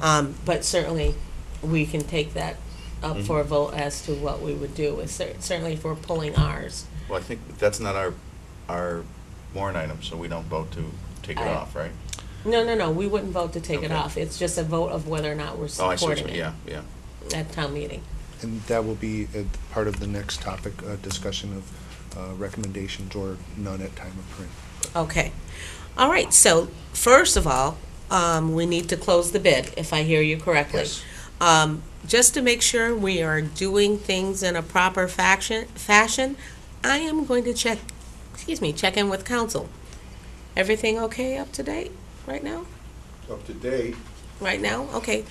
Um, but certainly, we can take that Mm-hmm. up for a vote as to what we would do, It's cer- certainly if we're pulling ours. Well, I think that's not our, our warrant item, so we don't vote to take it I- off, right? No, no, no, we wouldn't vote to take it Okay. off, it's just a vote of whether or not we're Oh, I see, what supporting you- it yeah, yeah. at town meeting. And that will be uh, part of the next topic, uh, discussion of uh, recommendations or none at time of print. Okay, all right, so first of all, um, we need to close the bid, if I hear you correctly. Yes. Um, just to make sure we are doing things in a proper faction, fashion, I am going to check, excuse me, check in with council. Everything okay up to date right now? up to date. Right now? Okay.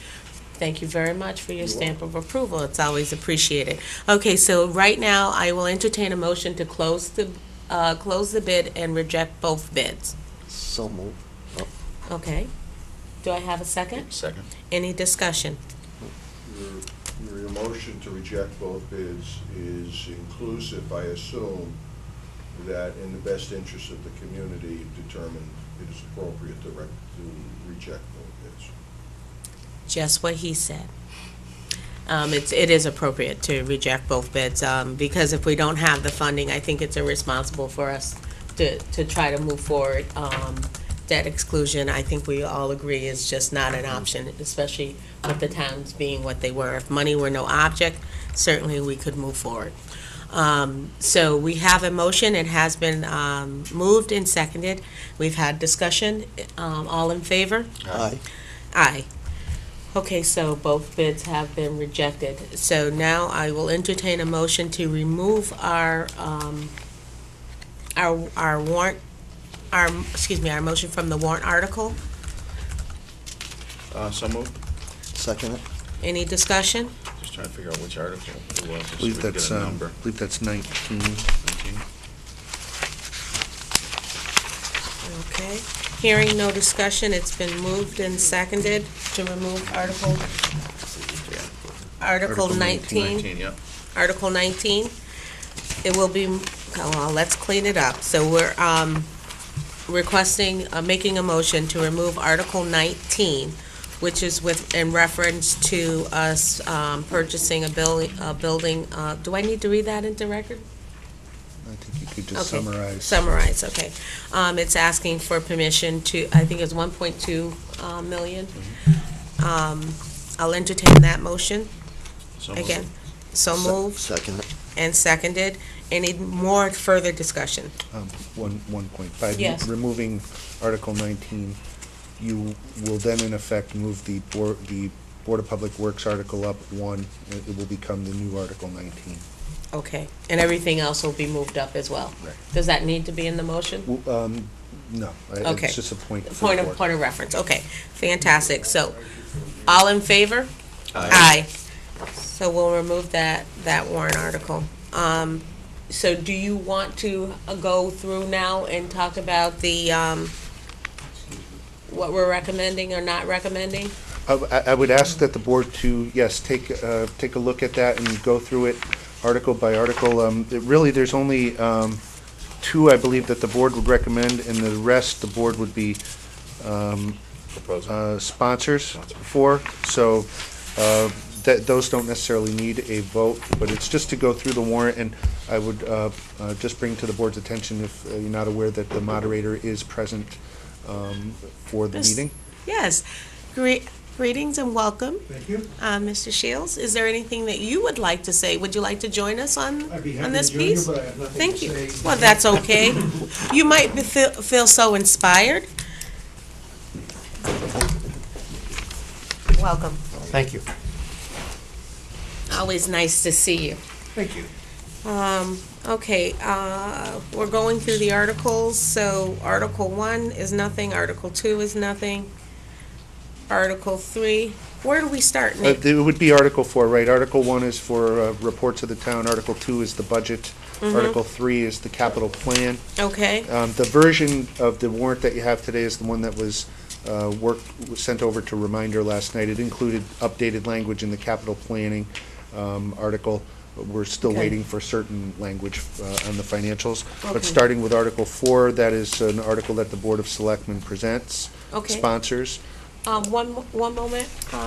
Thank you very much for your You're stamp of approval. It's always appreciated. Okay, so right now, I will entertain a motion to close the, uh, close the bid and reject both bids. So moved. Oh. Okay? Do I have a second? Second. Any discussion? Your, your motion to reject both bids is inclusive, I assume, that in the best interest of the community, you determine it is appropriate to rec, to reject both bids. Just what he said. Um, it's, it is appropriate to reject both bids, um, because if we don't have the funding, I think it's irresponsible for us to, to try to move forward. Um, debt exclusion, I think we all agree is just not an option, especially with the towns being what they were. If money were no object, certainly we could move forward. Um, so we have a motion, it has been, um, moved and seconded. We've had discussion, um, all in favor? Aye. Aye. Okay, so both bids have been rejected. So now I will entertain a motion to remove our, um, our, our warrant, our, excuse me, our motion from the warrant article. Uh, so moved. Second it. Any discussion? Just trying to figure out which article it was. just I so believe we could that's, Get a um, number. I believe that's 19. Okay. Okay. Hearing no discussion, it's been moved and seconded to remove Article, Article Article nineteen. Nineteen, yep. Article 19. It will be, oh, well, let's clean it up. So we're um, requesting, uh, making a motion to remove Article 19, which is with, in reference to us um, purchasing a building, a building, uh, do I need to read that into record? I think you could just Okay. summarize. Summarize, okay. Um, It's asking for permission to, I think it's 1.2 uh, million. Um, I'll entertain that motion So moved. again. So Se- moved. Second it. and seconded. Any more further discussion? Um, One, 1.5. Yes. Removing Article 19, you will then in effect move the Board, the Board of Public Works article up one. It it will become the new Article 19. Okay, and everything else will be moved up as well? Right. Does that need to be in the motion? W- um, No, I- Okay. it's just a point. for the Point of, board. point of reference, okay, fantastic. So, all in favor? Aye. So we'll remove that, that warrant article. Um, so do you want to uh, go through now and talk about the, um, what we're recommending or not recommending? I, I would ask that the board to, yes, take, uh, take a look at that and go through it article by article. Um, it really, there's only, um, two, I believe, that the board would recommend, and the rest, the board would be, um, Proposal. uh, sponsors for. So, uh, that, those don't necessarily need a vote, but it's just to go through the warrant, and I would, uh, uh, just bring to the board's attention if uh, you're not aware that the moderator is present, um, for the Yes. meeting. Yes, Gre- greetings and welcome. Thank you. Uh, Mr. Shields, is there anything that you would like to say? Would you like to join us on, I'd be happy on to this join you, piece? but I have nothing Thank to you. say. Well, that's okay. You might be, feel, feel so inspired. Welcome. Thank you. Always nice to see you. Thank you. Um, okay, uh, we're going through the articles, so Article one is nothing, Article two is nothing. Article three, where do we start, Uh, Nick? It would be Article Four, right? Article One is for uh, reports of the town, Article Two is the budget, Mm-hmm. Article Three is the capital plan. Okay, Um, The version of the warrant that you have today is the one that was uh, worked, was sent over to Reminder last night. It included updated language in the capital planning um, article. We're still Okay. waiting for certain language uh, on the financials. But Okay. starting with Article Four, that is an article that the Board of Selectmen presents Okay. sponsors. Um, one, mo- one moment, uh,